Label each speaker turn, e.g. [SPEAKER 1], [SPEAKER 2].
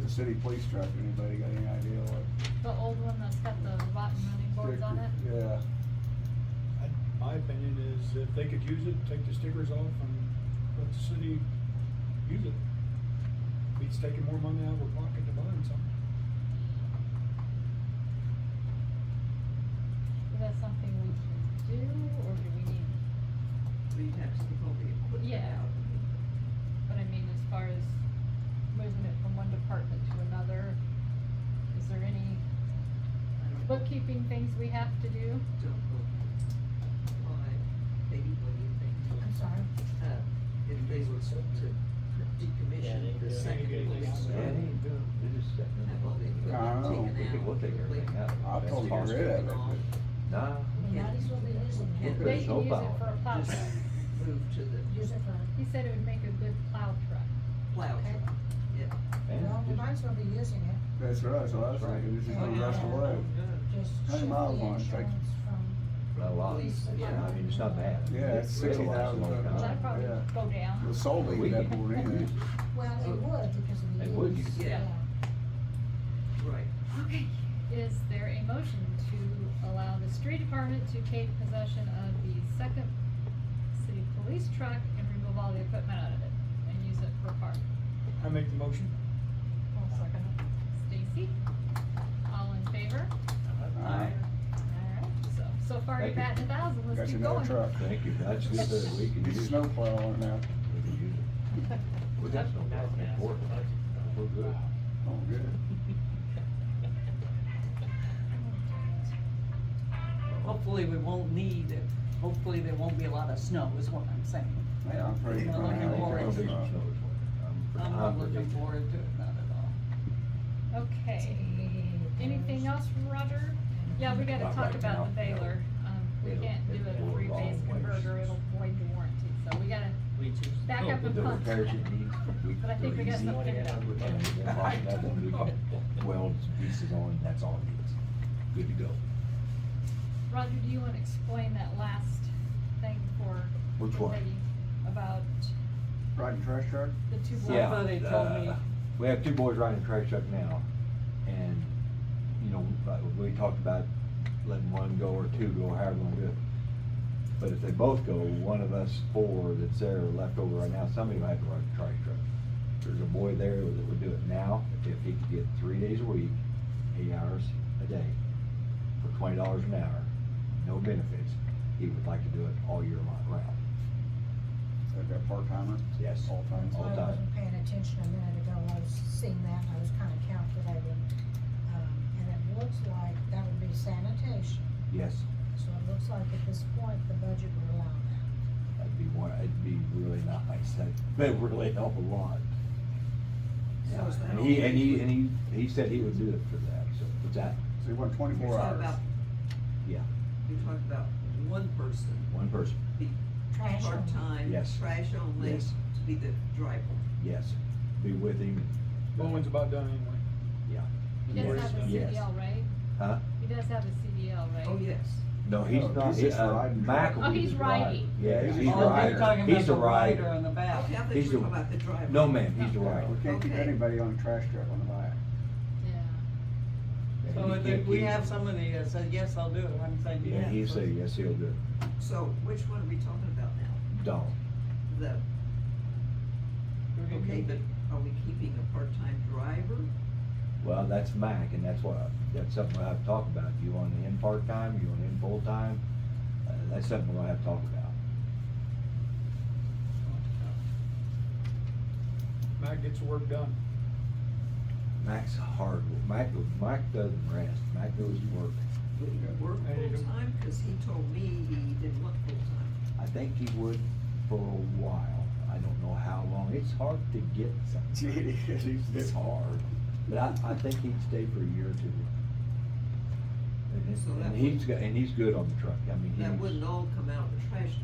[SPEAKER 1] the city police truck, anybody got any idea what?
[SPEAKER 2] The old one that's got the rotten running boards on it?
[SPEAKER 1] Yeah,
[SPEAKER 3] I- My opinion is if they could use it, take the stickers off and let the city use it. Beats taking more money out of our pocket to buy them something.
[SPEAKER 2] Is that something we can do, or do we need,
[SPEAKER 4] we have to take all the equipment
[SPEAKER 2] Yeah.
[SPEAKER 4] out.
[SPEAKER 2] but I mean, as far as moving it from one department to another, is there any
[SPEAKER 4] I don't know.
[SPEAKER 2] bookkeeping things we have to do?
[SPEAKER 4] Don't vote. Why, baby, what do you think? Uh, if they were to decommission the second place,
[SPEAKER 5] Yeah, they ain't doing, they're just setting it
[SPEAKER 4] have all the
[SPEAKER 1] I
[SPEAKER 5] up.
[SPEAKER 1] don't know.
[SPEAKER 2] Oh.
[SPEAKER 4] equipment
[SPEAKER 5] We
[SPEAKER 4] taken
[SPEAKER 5] could,
[SPEAKER 4] out.
[SPEAKER 5] we'll take everything out.
[SPEAKER 1] I'll
[SPEAKER 5] That's
[SPEAKER 1] tell
[SPEAKER 5] it.
[SPEAKER 1] them I'll read it.
[SPEAKER 5] Nah,
[SPEAKER 4] Can't
[SPEAKER 5] We'll put a
[SPEAKER 2] They can use
[SPEAKER 5] snowplow
[SPEAKER 2] it for a
[SPEAKER 5] on
[SPEAKER 2] plow
[SPEAKER 4] Just-
[SPEAKER 2] truck.
[SPEAKER 4] move to the
[SPEAKER 6] Use it for,
[SPEAKER 2] He said it would make a good plow truck.
[SPEAKER 4] plow
[SPEAKER 6] Okay.
[SPEAKER 4] truck, yeah.
[SPEAKER 5] it. Man,
[SPEAKER 6] well, we
[SPEAKER 5] just-
[SPEAKER 6] might as well be using it,
[SPEAKER 1] that's right, so that's right, this is the rest away.
[SPEAKER 3] Uh-huh.
[SPEAKER 6] just
[SPEAKER 1] How many
[SPEAKER 6] shift the
[SPEAKER 1] miles long it
[SPEAKER 6] insurance
[SPEAKER 1] take?
[SPEAKER 6] from,
[SPEAKER 5] Not a lot,
[SPEAKER 4] Police,
[SPEAKER 5] It's not- I mean, it's not bad.
[SPEAKER 1] Yeah, it's sixty thousand.
[SPEAKER 2] Well, that'd probably
[SPEAKER 1] Yeah.
[SPEAKER 2] go
[SPEAKER 1] The
[SPEAKER 2] down.
[SPEAKER 1] soul leak that
[SPEAKER 5] We-
[SPEAKER 1] more than anything.
[SPEAKER 6] well, it would because of the
[SPEAKER 5] It would,
[SPEAKER 6] use,
[SPEAKER 4] you- Yeah.
[SPEAKER 6] yeah.
[SPEAKER 4] Right,
[SPEAKER 2] Okay. Is there a motion to allow the street department to take possession of the second city police truck and remove all the equipment out of it and use it for park?
[SPEAKER 3] I make the motion.
[SPEAKER 2] Stacy, all in favor?
[SPEAKER 1] Uh,
[SPEAKER 2] Alright, so, so far you've
[SPEAKER 5] Thank
[SPEAKER 2] had a thousand, let's
[SPEAKER 1] Got you
[SPEAKER 2] keep
[SPEAKER 1] another
[SPEAKER 2] going.
[SPEAKER 1] truck.
[SPEAKER 5] Thank you, that's good that we can
[SPEAKER 1] Get
[SPEAKER 5] use
[SPEAKER 1] your
[SPEAKER 5] it.
[SPEAKER 1] snowplow on it now.
[SPEAKER 5] We can use it. We got snowplow in Fort Worth. We're good.
[SPEAKER 1] Oh, good.
[SPEAKER 7] Hopefully, we won't need, hopefully there won't be a lot of snow is what I'm saying.
[SPEAKER 1] Yeah, I'm pretty.
[SPEAKER 7] No,
[SPEAKER 5] Uh,
[SPEAKER 1] proud
[SPEAKER 7] looking
[SPEAKER 1] of it.
[SPEAKER 7] forward
[SPEAKER 5] There'll
[SPEAKER 7] to
[SPEAKER 5] be
[SPEAKER 7] it.
[SPEAKER 1] uh,
[SPEAKER 5] some snow this winter. I'm-
[SPEAKER 7] I'm
[SPEAKER 5] I'm
[SPEAKER 7] not looking
[SPEAKER 5] predicting.
[SPEAKER 7] forward to it, not at all.
[SPEAKER 2] Okay, anything else, Roger? Yeah, we gotta
[SPEAKER 5] Not
[SPEAKER 2] talk
[SPEAKER 5] right
[SPEAKER 2] about the
[SPEAKER 5] now, no.
[SPEAKER 2] baler, um, we
[SPEAKER 5] It'll-
[SPEAKER 2] can't do
[SPEAKER 5] it'll go
[SPEAKER 2] a
[SPEAKER 5] a
[SPEAKER 2] three-phase
[SPEAKER 5] long ways.
[SPEAKER 2] converter, it'll void the warranty, so we gotta back up and
[SPEAKER 5] The
[SPEAKER 2] pump.
[SPEAKER 5] repairs it needs. we-
[SPEAKER 2] But I think we got
[SPEAKER 5] easy.
[SPEAKER 2] something figured out.
[SPEAKER 5] And we can lock it up and we can Weld some pieces on, that's all it needs. Good to go.
[SPEAKER 2] Roger, do you wanna explain that last thing for?
[SPEAKER 5] Which
[SPEAKER 2] for
[SPEAKER 5] one?
[SPEAKER 2] Peggy About
[SPEAKER 1] Riding trash truck?
[SPEAKER 2] the two.
[SPEAKER 7] I
[SPEAKER 5] Yeah,
[SPEAKER 7] thought they told me-
[SPEAKER 5] uh, We have two boys riding a trash truck now, and, you know, like we talked about letting one go or two go, however we're gonna do it. But if they both go, one of us four that's there left over right now, somebody might have to ride the trash truck. There's a boy there that would do it now, if he could get three days a week, eight hours a day, for twenty dollars an hour, no benefits, he would like to do it all year long round.
[SPEAKER 1] Is that that part timer?
[SPEAKER 5] Yes.
[SPEAKER 1] All time.
[SPEAKER 6] That's
[SPEAKER 5] All
[SPEAKER 6] why I
[SPEAKER 5] time.
[SPEAKER 6] wasn't paying attention a minute ago, I was seeing that, and I was kinda calculating, um, and it looks like that would be sanitation.
[SPEAKER 5] Yes,
[SPEAKER 6] So it looks like at this point, the budget would allow that.
[SPEAKER 5] that'd be one, it'd be really nice, that'd, that'd really help a lot.
[SPEAKER 4] So is that
[SPEAKER 5] And he,
[SPEAKER 4] all
[SPEAKER 5] and he,
[SPEAKER 4] we-
[SPEAKER 5] and he, he said he would do it for that, so, what's that,
[SPEAKER 1] So you want
[SPEAKER 4] you're
[SPEAKER 1] twenty-four
[SPEAKER 4] talking
[SPEAKER 1] hours?
[SPEAKER 4] about,
[SPEAKER 5] yeah,
[SPEAKER 4] you're talking about one person,
[SPEAKER 5] one person,
[SPEAKER 4] be
[SPEAKER 6] Trash only.
[SPEAKER 4] part-time,
[SPEAKER 5] Yes.
[SPEAKER 4] trash only,
[SPEAKER 5] Yes.
[SPEAKER 4] to be the driver.
[SPEAKER 5] yes, be with him,
[SPEAKER 3] Bowen's about done anyway.
[SPEAKER 5] yeah.
[SPEAKER 2] He does have a
[SPEAKER 5] Yes.
[SPEAKER 2] CDL, right?
[SPEAKER 5] Huh?
[SPEAKER 2] He does have a CDL, right?
[SPEAKER 4] Oh, yes.
[SPEAKER 5] No, he's
[SPEAKER 1] No,
[SPEAKER 5] not,
[SPEAKER 1] he's
[SPEAKER 5] he,
[SPEAKER 1] just
[SPEAKER 5] uh,
[SPEAKER 1] riding.
[SPEAKER 5] Mac.
[SPEAKER 2] Oh, he's riding.
[SPEAKER 5] Yeah, he's
[SPEAKER 1] He's
[SPEAKER 5] a
[SPEAKER 7] Oh, they're talking
[SPEAKER 5] rider,
[SPEAKER 7] about
[SPEAKER 5] he's
[SPEAKER 7] the
[SPEAKER 5] a
[SPEAKER 7] rider
[SPEAKER 5] rider,
[SPEAKER 7] on the back.
[SPEAKER 4] Okay, I think
[SPEAKER 5] He's
[SPEAKER 4] we're
[SPEAKER 5] the-
[SPEAKER 4] talking about the driver.
[SPEAKER 5] no man, he's the
[SPEAKER 1] Yeah,
[SPEAKER 5] rider.
[SPEAKER 1] We can't keep
[SPEAKER 4] Okay.
[SPEAKER 1] anybody on a trash truck on the bike.
[SPEAKER 2] Yeah.
[SPEAKER 5] And
[SPEAKER 7] So
[SPEAKER 5] he
[SPEAKER 7] I
[SPEAKER 5] can't
[SPEAKER 7] think we
[SPEAKER 5] keep-
[SPEAKER 7] have somebody that said, yes, I'll do it, I'm saying, yes.
[SPEAKER 5] Yeah, he said, yes, he'll do it,
[SPEAKER 4] So which one are we talking about now?
[SPEAKER 5] Don,
[SPEAKER 4] The,
[SPEAKER 7] We're gonna
[SPEAKER 4] okay,
[SPEAKER 7] keep
[SPEAKER 4] but
[SPEAKER 7] it.
[SPEAKER 4] are we keeping a part-time driver?
[SPEAKER 5] well, that's Mac, and that's what, I- that's something we'll have to talk about, you want him part-time, you want him full-time, uh, that's something we're gonna have to talk about.
[SPEAKER 3] Matt gets the work done.
[SPEAKER 5] Mac's hard, Mac, Mac doesn't rest, Mac goes to work.
[SPEAKER 4] Would he work
[SPEAKER 3] I need to-
[SPEAKER 4] full-time? Cause he told me he didn't want full-time.
[SPEAKER 5] I think he would for a while, I don't know how long, it's hard to get something, it's hard, but I, I think he'd stay for a year or two. And it's-
[SPEAKER 4] So that
[SPEAKER 5] And he's, go- and he's good on the truck, I mean,
[SPEAKER 4] That wouldn't
[SPEAKER 5] he's,
[SPEAKER 4] all come out of the trash